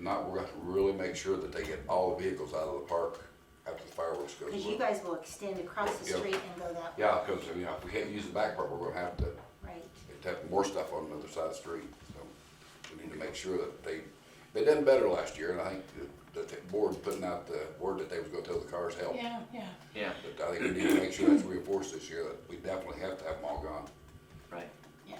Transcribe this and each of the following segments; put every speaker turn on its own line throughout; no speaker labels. not, we're gonna have to really make sure that they get all the vehicles out of the park after the fireworks goes.
Because you guys will extend across the
Yeah.
street and go that way,
Yeah, because, you know, if we can't use the back part, we're gonna have to,
right?
have more stuff on the other side of the street, so we need to make sure that they, they done better last year, and I think that the board putting out the word that they was gonna tell the cars help.
Yeah, yeah,
Yeah,
But I think we need to make sure that's reinforced this year, that we definitely have to have them all gone.
right.
Yeah.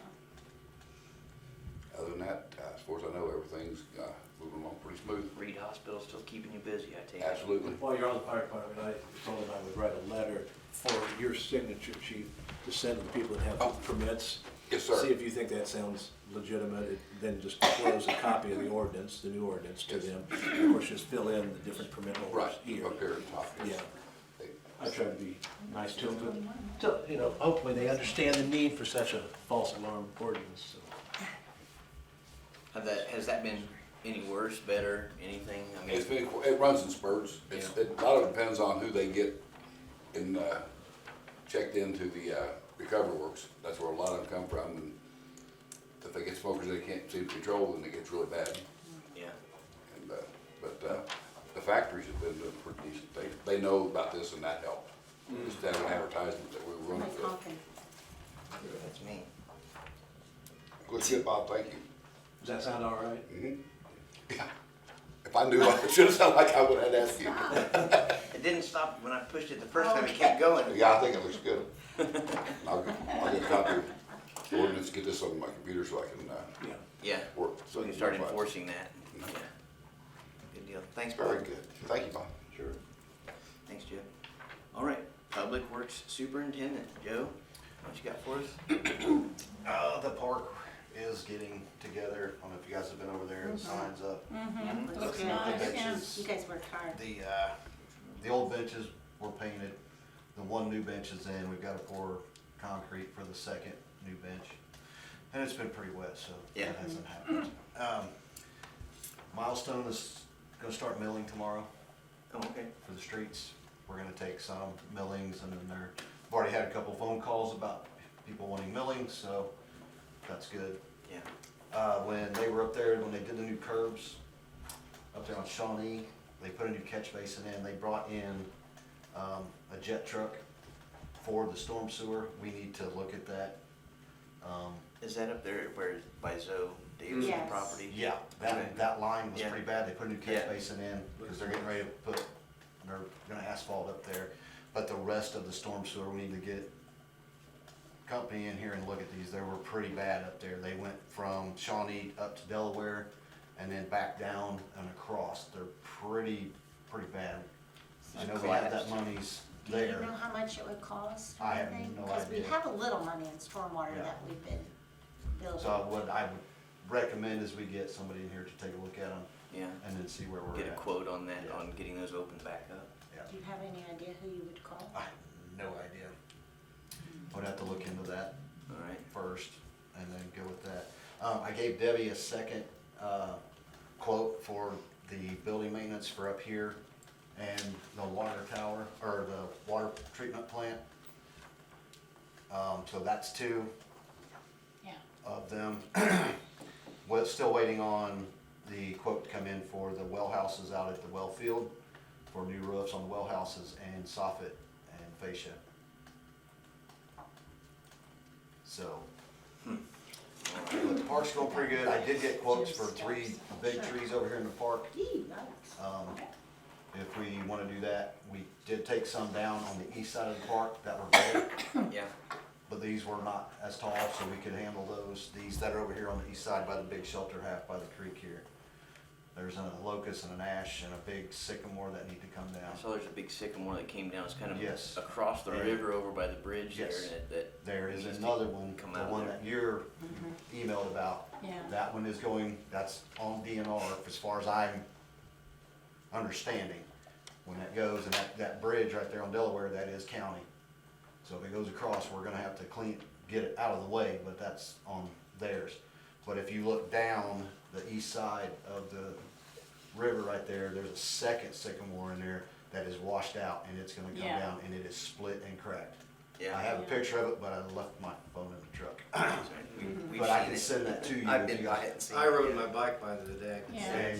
Other than that, uh, as far as I know, everything's, uh, moving along pretty smooth.
Reed Hospital still keeping you busy, I take it.
Absolutely.
While you're on the fire department, I told him I would write a letter for your signature, chief, to send to the people that
Oh.
have permits.
Yes, sir.
See if you think that sounds legitimate, It- then just close a copy of the ordinance, the new ordinance to them. Of course, just fill in the different permit holders
Right,
here.
up here at the top.
Yeah, I try to be nice to them, but, so, you know, hopefully they understand the need for such a false alarm ordinance, so.
Have that, has that been any worse, better, anything? I mean,
It's been, it runs in spurts. It's,
Yeah.
it, a lot of it depends on who they get in, uh, checked into the, uh, recovery works. That's where a lot of them come from, and if they get smokers they can't seem to control, then it gets really bad.
yeah,
And, uh, but, uh, the factories have been doing pretty decent. They, they know about this and that helped. Just have an advertisement that we were
My
running.
pumpkin.
that's me.
Good shit, Bob, thank you. Mm-hmm.
Does that sound all right?
Yeah. If I knew, I should have sounded like I would have asked you.
It didn't stop when I pushed it the first time, it kept going.
Oh, Yeah, I think it looks good. I'll, get- I'll get a copy of the ordinance, get this on my computer so I can, uh,
Yeah.
Yeah,
work.
so we can start enforcing that. Yeah. Good deal. Thanks, Bob.
Very good. Thank you, Bob.
Sure.
Thanks, Joe. All right, Public Works Superintendent, Joe, what you got for us?
Uh, the park is getting together. I don't know if you guys have been over there and signs up.
Looks
Looks
good.
nice,
yeah.
You guys worked hard.
The, uh, the old benches were painted. The one new bench is in. We've got to pour concrete for the second new bench. And it's been pretty wet, so
Yeah.
that hasn't happened. Um, Milestone is gonna start milling tomorrow
Oh, okay.
for the streets. We're gonna take some millings and then there, I've already had a couple phone calls about people wanting milling, so that's good.
Yeah,
uh, when they were up there, when they did the new curbs up there on Shawnee, they put a new catch basin in, they brought in, um, a jet truck for the storm sewer, we need to look at that. Um,
is that up there where, by Zoe Davis'
Yes.
property?
yeah, that, that line was
Yeah.
pretty bad, they put a new catch
Yeah.
basin in, cause they're getting ready to put, they're gonna asphalt up there, but the rest of the storm sewer, we need to get company in here and look at these, they were pretty bad up there, they went from Shawnee up to Delaware, and then back down and across, they're pretty, pretty bad. I know we have that
Collapsed.
money's
Do you
there.
know how much it would cost? or
I have
anything?
no
Because we
idea.
have a little money in stormwater
Yeah.
that we've been building.
So what I would recommend is we get somebody in here to take a look at them,
Yeah,
and then see where we're at.
get a quote on that,
Yeah.
on getting those opened back up.
Yeah.
Do you have any idea who you would call?
I have no idea. Would have to look into that
All right,
first and then go with that. Um, I gave Debbie a second, uh, quote for the building maintenance for up here and the water tower, or the water treatment plant. Um, so that's two
yeah.
of them. We're still waiting on the quote to come in for the well houses out at the well field for new roofs on the well houses and soffit and fascia. So, but the park's going pretty good. I did get quotes for three big trees over here in the park.
Gee, yikes.
Um, if we wanna do that, we did take some down on the east side of the park that were big.
yeah,
But these were not as tall, so we could handle those. These that are over here on the east side by the big shelter, half by the creek here. There's a locust and an ash and a big sycamore that need to come
I
down.
saw there's a big sycamore that came down, it's kind of
Yes.
across the
Yeah.
river over by the bridge there,
Yes.
and it- that.
There is
needs to
another one,
come
the
out of
one
there.
that you're emailed about.
Mm-hmm. Yeah.
That one is going, that's on DNR as far as I'm understanding. When that goes, and that, that bridge right there on Delaware, that is county. So if it goes across, we're gonna have to clean, get it out of the way, but that's on theirs. But if you look down the east side of the river right there, there's a second sycamore in there that is washed out and it's gonna come
Yeah.
down and it is split and cracked.
Yeah.
I have a
Yeah.
picture of it, but I left my phone in the truck.
We- we've
But I
seen
can
it.
send that to you
I've
if
been
you
by
got-
it and seen
I
it,
rode
yeah.
my bike by the other day. I could
Yeah.
see it.
And